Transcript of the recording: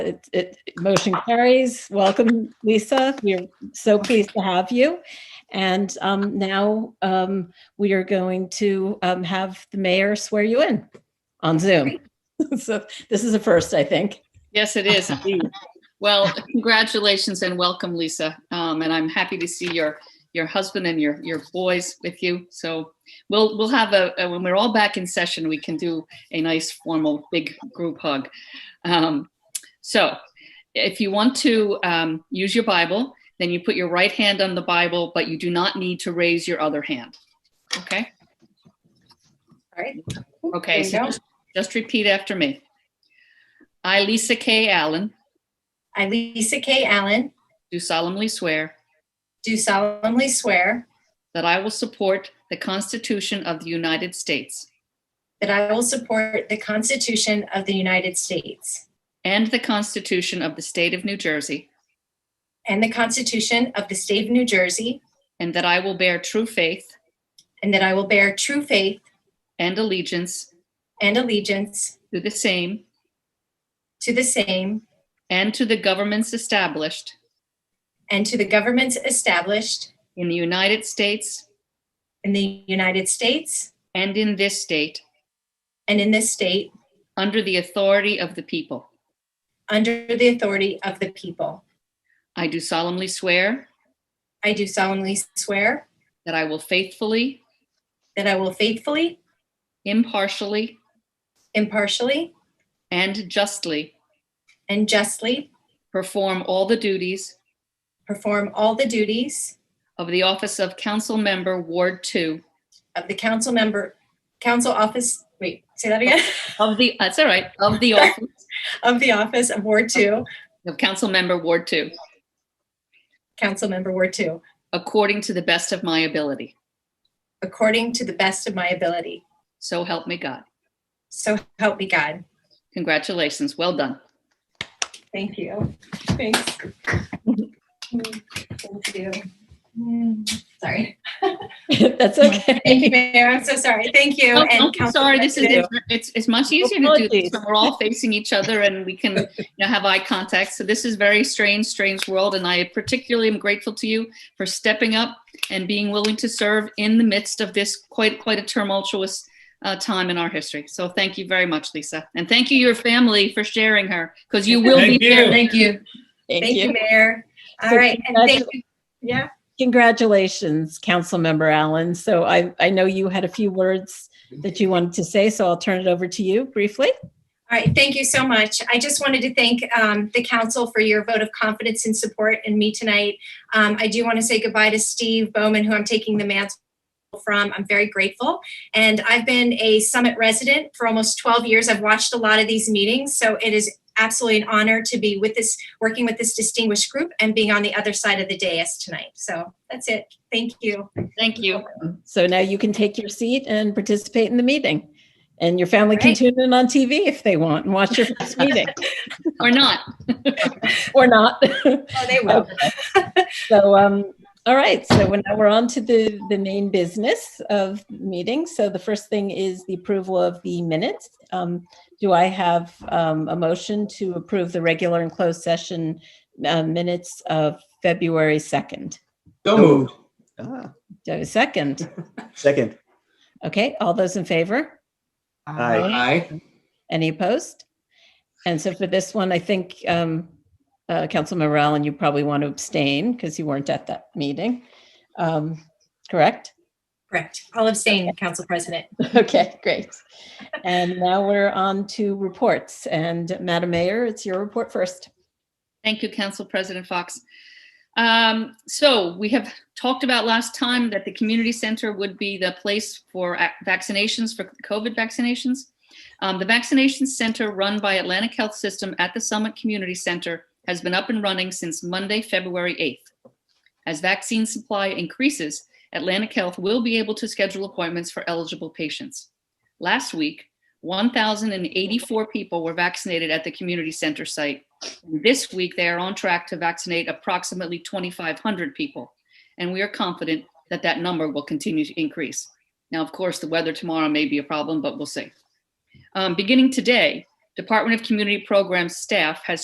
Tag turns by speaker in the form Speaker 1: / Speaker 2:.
Speaker 1: It, it, motion carries. Welcome, Lisa. We're so pleased to have you. And um, now um, we are going to um, have the mayor swear you in on Zoom. So this is a first, I think.
Speaker 2: Yes, it is. indeed. Well, congratulations and welcome, Lisa. Um, and I'm happy to see your, your husband and your, your boys with you. So we'll, we'll have a, a- when we're all back in session, we can do a nice formal big group hug. Um, so if you want to, um, use your Bible, then you put your right hand on the Bible, but you do not need to raise your other hand. Okay?
Speaker 3: All right.
Speaker 2: Okay, so
Speaker 3: There you go.
Speaker 2: just- just repeat after me. I, Lisa K. Allen,
Speaker 3: I, Lisa K. Allen,
Speaker 2: do solemnly swear
Speaker 3: do solemnly swear
Speaker 2: that I will support the Constitution of the United States
Speaker 3: that I will support the Constitution of the United States
Speaker 2: and the Constitution of the State of New Jersey,
Speaker 3: and the Constitution of the State of New Jersey,
Speaker 2: and that I will bear true faith
Speaker 3: and that I will bear true faith
Speaker 2: and allegiance
Speaker 3: and allegiance
Speaker 2: to the same
Speaker 3: to the same
Speaker 2: and to the governments established
Speaker 3: and to the governments established
Speaker 2: in the United States
Speaker 3: in the United States
Speaker 2: and in this state
Speaker 3: and in this state
Speaker 2: under the authority of the people.
Speaker 3: under the authority of the people.
Speaker 2: I do solemnly swear
Speaker 3: I do solemnly swear
Speaker 2: that I will faithfully,
Speaker 3: that I will faithfully,
Speaker 2: impartially,
Speaker 3: impartially,
Speaker 2: and justly
Speaker 3: and justly
Speaker 2: perform all the duties
Speaker 3: perform all the duties
Speaker 2: of the office of Council Member Ward 2
Speaker 3: of the council member, council office, wait, say that again,
Speaker 2: Of the, that's all right, of the office
Speaker 3: of the office of Ward Two,
Speaker 2: of council member Ward Two,
Speaker 3: council member Ward Two,
Speaker 2: according to the best of my ability.
Speaker 3: according to the best of my ability.
Speaker 2: So help me God.
Speaker 3: So help me God.
Speaker 2: Congratulations, well done.
Speaker 3: Thank you. Thanks. Thank you. Hmm, Sorry.
Speaker 1: That's okay.
Speaker 3: Thank you, Mayor. I'm so sorry. Thank you.
Speaker 2: No,
Speaker 3: and
Speaker 2: don't be
Speaker 3: Council
Speaker 2: Oh, sorry, this is,
Speaker 3: President.
Speaker 2: it's, it's much easier to do
Speaker 1: Apologies.
Speaker 2: this when we're all facing each other and we can, you know, have eye contact. So this is very strange, strange world. And I particularly am grateful to you for stepping up and being willing to serve in the midst of this quite, quite a tumultuous uh, time in our history. So thank you very much, Lisa. And thank you, your family, for sharing her, because you will be
Speaker 4: Thank you.
Speaker 2: sharing.
Speaker 3: Thank you.
Speaker 1: Thank
Speaker 3: Thank you,
Speaker 1: you.
Speaker 3: Mayor. All
Speaker 1: So
Speaker 3: right. And thank you. Yeah.
Speaker 1: Congratulations, Councilmember Allen. So I, I know you had a few words that you wanted to say, so I'll turn it over to you briefly.
Speaker 3: All right, thank you so much. I just wanted to thank um, the council for your vote of confidence and support in me tonight. Um, I do want to say goodbye to Steve Bowman, who I'm taking the mantle from. I'm very grateful. And I've been a Summit resident for almost 12 years. I've watched a lot of these meetings, so it is absolutely an honor to be with this, working with this distinguished group and being on the other side of the dais tonight. So that's it. Thank you.
Speaker 2: Thank you.
Speaker 1: So now you can take your seat and participate in the meeting. And your family can
Speaker 3: Right.
Speaker 1: tune in on TV if they want and watch your first meeting
Speaker 2: Or not.
Speaker 1: or not.
Speaker 3: Oh, they will.
Speaker 1: So, um, all right, so when- now we're on to the, the main business of the meeting. So the first thing is the approval of the minutes. Um, do I have, um, a motion to approve the regular and closed session, uh, minutes of February 2nd?
Speaker 4: So moved.
Speaker 5: Ah,
Speaker 1: Do I have a second?
Speaker 5: Second.
Speaker 1: Okay, all those in favor?
Speaker 5: Aye.
Speaker 4: Aye.
Speaker 1: Any opposed? And so for this one, I think, um, uh, Councilmember Allen, you probably want to abstain because you weren't at that meeting. Um, correct?
Speaker 3: Correct. I'll abstain, Council President.
Speaker 1: Okay, great. And now we're on to reports. And Madam Mayor, it's your report first.
Speaker 2: Thank you, Council President Fox. Um, so we have talked about last time that the community center would be the place for ac- vaccinations, for COVID vaccinations. Um, the vaccination center run by Atlantic Health System at the Summit Community Center has been up and running since Monday, February 8th. As vaccine supply increases, Atlantic Health will be able to schedule appointments for eligible patients. Last week, 1,084 people were vaccinated at the community center site. This week, they are on track to vaccinate approximately 2,500 people, and we are confident that that number will continue to increase. Now, of course, the weather tomorrow may be a problem, but we'll see. Um, beginning today, Department of Community Programs staff has